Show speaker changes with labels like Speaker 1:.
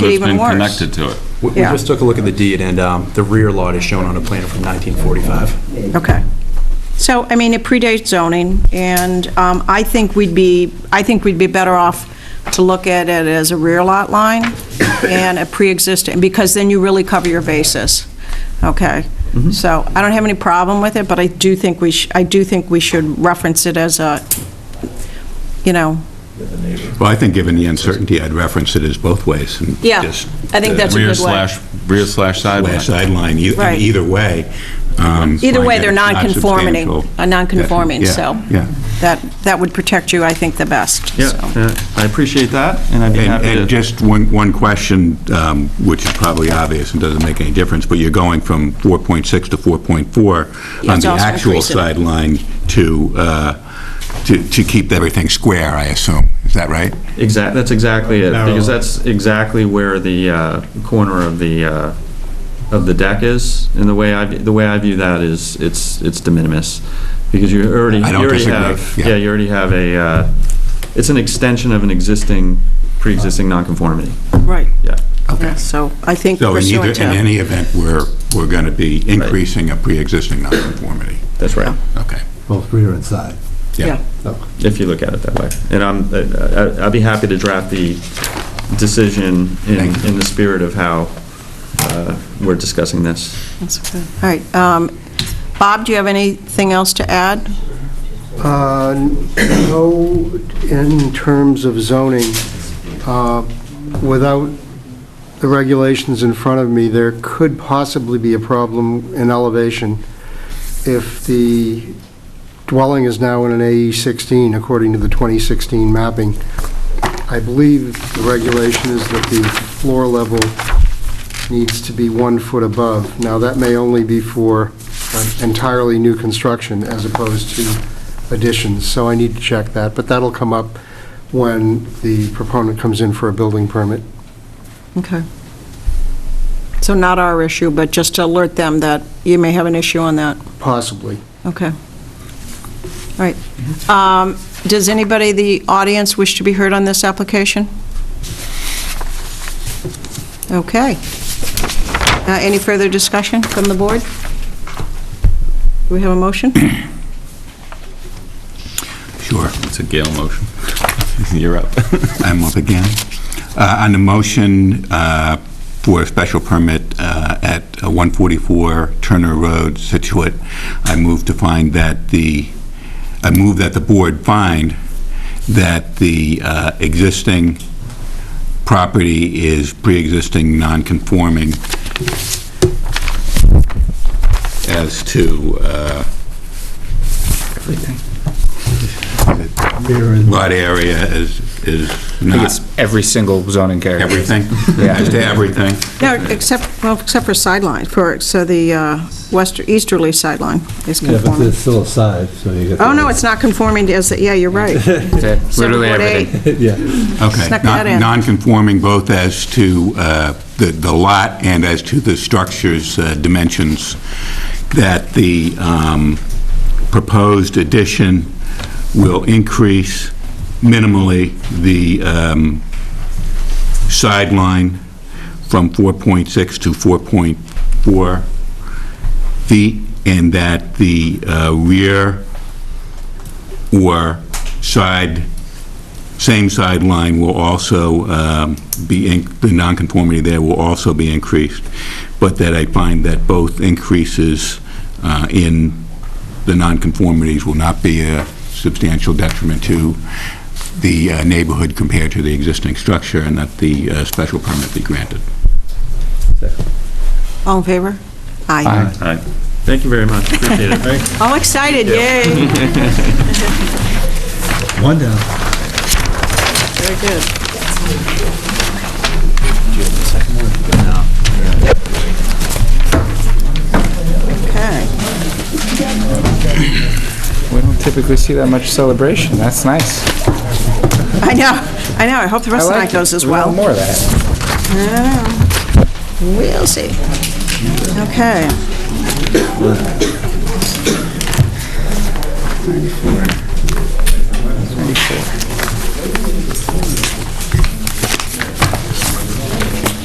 Speaker 1: It's
Speaker 2: even
Speaker 1: been
Speaker 2: worse.
Speaker 1: connected to it.
Speaker 3: We we
Speaker 2: Yeah.
Speaker 3: just took a look at the deed, and um, the rear lot is shown on a plan from 1945.
Speaker 2: Okay. So, I mean, it predates zoning, and um, I think we'd be, I think we'd be better off to look at it as a rear lot line and a pre-existing, because then you really cover your bases, okay?
Speaker 4: Mm-hmm.
Speaker 2: So, I don't have any problem with it, but I do think we, sh- I do think we should reference it as a, you know,
Speaker 4: Well, I think given the uncertainty, I'd reference it as both ways. and
Speaker 2: yeah,
Speaker 4: just uh,
Speaker 2: I think that's a
Speaker 1: Rear
Speaker 2: good way.
Speaker 1: slash, rear slash
Speaker 4: Last
Speaker 1: sideline.
Speaker 4: sideline, e-
Speaker 2: Right.
Speaker 4: and either way. um,
Speaker 2: Either
Speaker 4: find
Speaker 2: way,
Speaker 4: that
Speaker 2: they're
Speaker 4: it's not
Speaker 2: non-conforming,
Speaker 4: substantial.
Speaker 2: uh, non-conforming,
Speaker 4: Yeah,
Speaker 2: so.
Speaker 4: Yeah.
Speaker 2: That, that would protect you, I think, the best,
Speaker 5: Yeah,
Speaker 2: so.
Speaker 5: uh, I appreciate that, and I'd be
Speaker 4: And
Speaker 5: happy
Speaker 4: and
Speaker 5: to,
Speaker 4: just one, one question, um, which is probably obvious and doesn't make any difference, but you're going from 4.6 to 4.4
Speaker 2: Yeah,
Speaker 4: on
Speaker 2: it's
Speaker 4: the
Speaker 2: also
Speaker 4: actual
Speaker 2: increasing.
Speaker 4: sideline to, uh, to to keep everything square, I assume. Is that right?
Speaker 5: exact, that's exactly it,
Speaker 3: Narrow.
Speaker 5: because that's exactly where the uh, corner of the, uh, of the deck is, and the way I, the way I view that is, it's, it's de minimis, because you already, you
Speaker 4: I don't
Speaker 5: already
Speaker 4: disagree,
Speaker 5: have,
Speaker 4: yeah.
Speaker 5: yeah, you already have a, uh, it's an extension of an existing, pre-existing nonconformity,
Speaker 2: Right.
Speaker 5: yeah.
Speaker 2: Yeah, So I think
Speaker 4: So in either,
Speaker 2: pursuant
Speaker 4: in
Speaker 2: to,
Speaker 4: any event, we're, we're going to be increasing a pre-existing nonconformity.
Speaker 5: That's right,
Speaker 4: Okay.
Speaker 6: both rear and side.
Speaker 2: yeah,
Speaker 5: if you look at it that way. And I'm, I- I- I'd be happy to draft the decision in,
Speaker 4: Thank you.
Speaker 5: in the spirit of how uh, we're discussing this.
Speaker 2: that's okay. All right, um, Bob, do you have anything else to add?
Speaker 7: Uh, No, in terms of zoning, uh, without the regulations in front of me, there could possibly be a problem in elevation if the dwelling is now in an AE16, according to the 2016 mapping. I believe the regulation is that the floor level needs to be one foot above. Now, that may only be for uh, entirely new construction as opposed to additions, so I need to check that, but that'll come up when the proponent comes in for a building permit.
Speaker 2: Okay. So not our issue, but just to alert them that you may have an issue on that.
Speaker 7: Possibly.
Speaker 2: Okay. All right. Um, Does anybody, in the audience, wish to be heard on this application? Okay. Uh, Any further discussion from the board? Do we have a motion?
Speaker 4: Sure.
Speaker 1: It's a Gale motion. You're up.
Speaker 4: I'm up again. Uh, On the motion uh, for a special permit uh, at 144 Turner Road, Situate, I move to find that the, I move that the board find that the uh, existing property is pre-existing non-conforming as to uh,
Speaker 6: Rear and,
Speaker 4: lot area is, is
Speaker 8: I think
Speaker 4: not
Speaker 8: it's every single zoning character.
Speaker 4: everything,
Speaker 8: Yeah.
Speaker 4: just everything.
Speaker 2: No, except, well, except for sideline, for, so the uh, west easterly sideline is
Speaker 6: yeah, but
Speaker 2: conforming.
Speaker 6: there's still a side, so you get.
Speaker 2: Oh, no, it's not conforming to, is it? yeah, you're right.
Speaker 8: Yeah, Literally
Speaker 2: Seven foot
Speaker 8: everything.
Speaker 2: eight.
Speaker 6: Yeah.
Speaker 4: Okay.
Speaker 2: Snuck that in.
Speaker 4: non non-conforming both as to uh, the the lot and as to the structure's uh, dimensions, that the um, proposed addition will increase minimally the um, sideline from 4.6 to 4.4 feet, and that the uh, rear or side same sideline will also um, be, in- the nonconformity there will also be increased, but that I find that both increases uh, in the nonconformities will not be a substantial detriment to the uh, neighborhood compared to the existing structure, and that the uh, special permit be granted.
Speaker 2: All in favor? Aye.
Speaker 8: Aye.
Speaker 5: All right. Thank you very much, appreciate it.
Speaker 2: All excited, yay.
Speaker 6: One down.
Speaker 2: Very good. Okay.
Speaker 8: We don't typically see that much celebration. That's nice.
Speaker 2: I know, I know, I hope the rest of the
Speaker 8: I like
Speaker 2: night
Speaker 8: it.
Speaker 2: goes as
Speaker 8: We want
Speaker 2: well.
Speaker 8: More of that.
Speaker 2: We'll see. Okay.